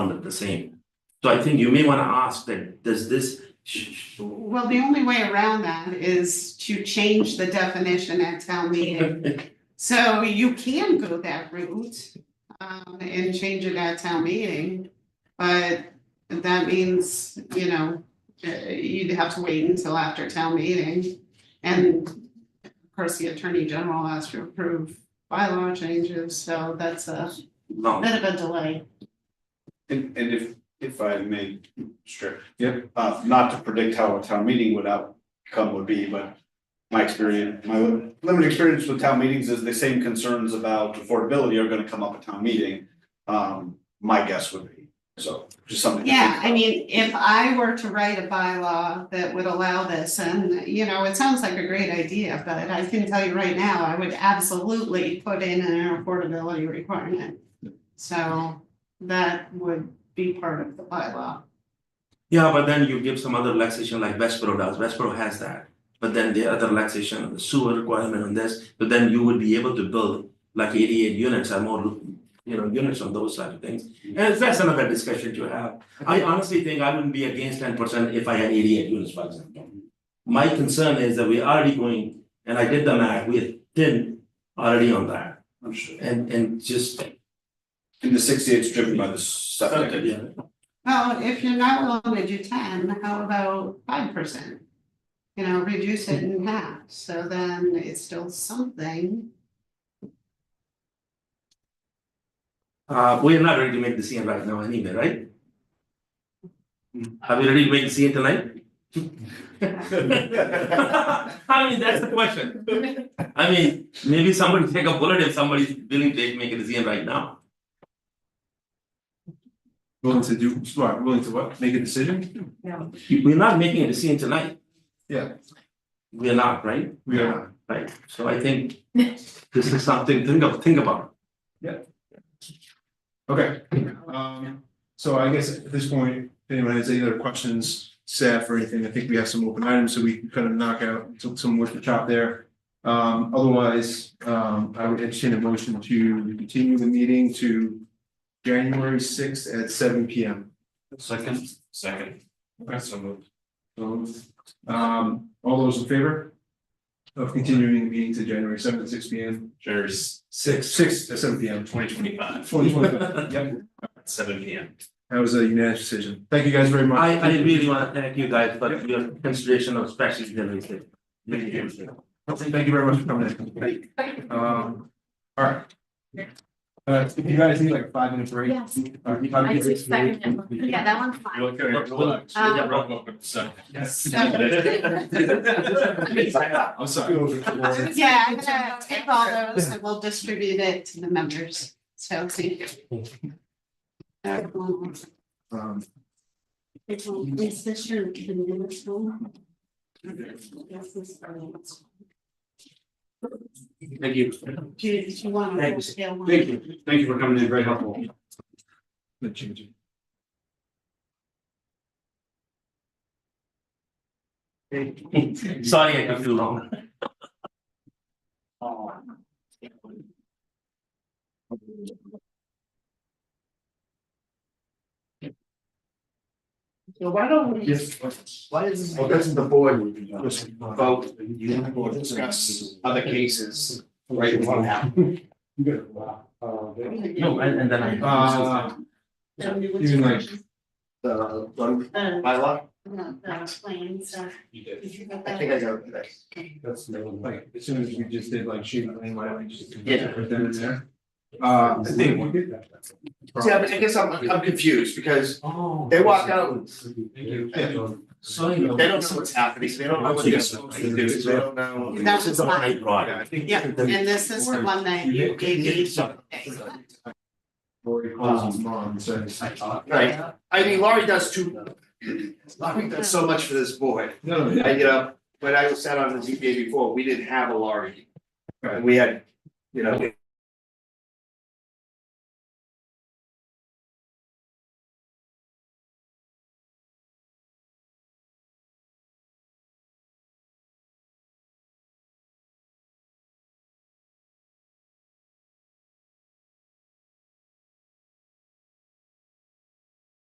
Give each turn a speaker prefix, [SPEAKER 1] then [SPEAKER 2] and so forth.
[SPEAKER 1] look the same. So I think you may wanna ask that, does this, sh- sh-
[SPEAKER 2] Well, the only way around that is to change the definition at town meeting. So you can go that route, um, and change it at town meeting. But that means, you know, uh, you'd have to wait until after town meeting. And of course, the attorney general has to approve bylaw changes, so that's a
[SPEAKER 1] no,
[SPEAKER 2] bit of a delay.
[SPEAKER 3] And and if if I may, sure. Yep. Uh, not to predict how a town meeting would outcome would be, but. My experience, my li- limited experience with town meetings is the same concerns about affordability are gonna come up at town meeting. Um, my guess would be, so just something. to think
[SPEAKER 2] Yeah, I mean, if I were to write a bylaw that would allow this, and you know, it sounds like a great idea, but I can tell you right now, I would absolutely put in an affordability requirement. So that would be part of the bylaw.
[SPEAKER 1] yeah, but then you give some other relaxation like Westboro does, Westboro has that. But then the other relaxation, the sewer requirement on this, but then you would be able to build like eighty-eight units or more, you know, units on those side of things. And that's another discussion to have. I honestly think I wouldn't be against ten percent if I had eighty-eight units, for example. My concern is that we're already going, and I did the math, we're thin already on that.
[SPEAKER 3] I'm sure.
[SPEAKER 1] And and just. Uh,
[SPEAKER 3] And the sixty eight's driven by the septic.
[SPEAKER 1] Yeah.
[SPEAKER 2] Well, if you're not willing to do ten, how about five percent? You know, reduce it in half, so then it's still something.
[SPEAKER 1] Uh, we are not ready to make the scene right now anyway, right? Are we ready to make the scene tonight? I mean, that's the question. I mean, maybe somebody take a bullet if somebody's willing to make a scene right now.
[SPEAKER 4] Willing to do, what, willing to what, make a decision?
[SPEAKER 1] We're not making a decision tonight.
[SPEAKER 4] Yeah.
[SPEAKER 1] We are not, right?
[SPEAKER 4] We are not.
[SPEAKER 1] Right, so I think this is something, think of, think about.
[SPEAKER 4] Okay, um, so I guess at this point, if anyone has any other questions, staff or anything, I think we have some open items, so we can kind of knock out some- some work to chop there. Um, otherwise, um, I would entertain a motion to continue the meeting to January sixth at seven P M.
[SPEAKER 3] Second, second.
[SPEAKER 4] So moved. Um, all those in favor? Of continuing the meeting to January seventh at six P M,
[SPEAKER 5] January
[SPEAKER 4] six, six at seven P M.
[SPEAKER 5] twenty twenty five,
[SPEAKER 4] Twenty twenty, yep.
[SPEAKER 5] seven P M.
[SPEAKER 4] That was a unanimous decision. Thank you guys very much.
[SPEAKER 1] I I really wanna thank you guys for your consideration of special delivery.
[SPEAKER 4] Thank you. Thank you very much for coming in. Um, all right. Uh, if you guys need like a five minute break. uh,
[SPEAKER 6] Yes.
[SPEAKER 4] All right, five
[SPEAKER 6] I
[SPEAKER 4] minute
[SPEAKER 6] took
[SPEAKER 4] break.
[SPEAKER 6] second one. Yeah, that one's fine. Um,
[SPEAKER 4] Yes.
[SPEAKER 5] I'm sorry.
[SPEAKER 2] Yeah, I'm gonna take all those and we'll distribute it to the members, so thank you. Um,
[SPEAKER 4] Um,
[SPEAKER 2] Is this your, the minutes room? Yes, this is our minutes.
[SPEAKER 3] Thank you.
[SPEAKER 2] Do you, do you want to?
[SPEAKER 1] Thanks.
[SPEAKER 2] scale one?
[SPEAKER 3] Thank you. Thank you for coming in, very helpful.
[SPEAKER 4] the change.
[SPEAKER 1] Sorry, I took too long.
[SPEAKER 3] So why don't we just, why is? Well, doesn't the board just vote, you will discuss other cases, right, what happened?
[SPEAKER 1] No, and and then I.
[SPEAKER 4] Uh, even like,
[SPEAKER 3] The, the
[SPEAKER 2] The,
[SPEAKER 3] bylaw?
[SPEAKER 2] the planes are.
[SPEAKER 3] You did.
[SPEAKER 2] Did you get
[SPEAKER 3] uh, I
[SPEAKER 2] that?
[SPEAKER 3] think I got it.
[SPEAKER 4] that's like, as soon as we just did like shoot, I mean, why don't we just.
[SPEAKER 3] Yeah.
[SPEAKER 4] Put that in there. Uh, I think.
[SPEAKER 3] Yeah, but I guess I'm, I'm confused because they walk out,
[SPEAKER 1] Sorry.
[SPEAKER 3] they don't know what's happening, they don't know what they're supposed to do, they don't know.
[SPEAKER 2] And that was mine.
[SPEAKER 1] Right.
[SPEAKER 2] Yeah, and this is the one that you gave me.
[SPEAKER 4] Lori calls his mom and says.
[SPEAKER 3] Right, I mean, Laurie does too. Laurie does so much for this board,
[SPEAKER 4] No,
[SPEAKER 3] I, you know, when I was sat on the ZBA before, we didn't have a Laurie.
[SPEAKER 4] Right.
[SPEAKER 3] We had, you know,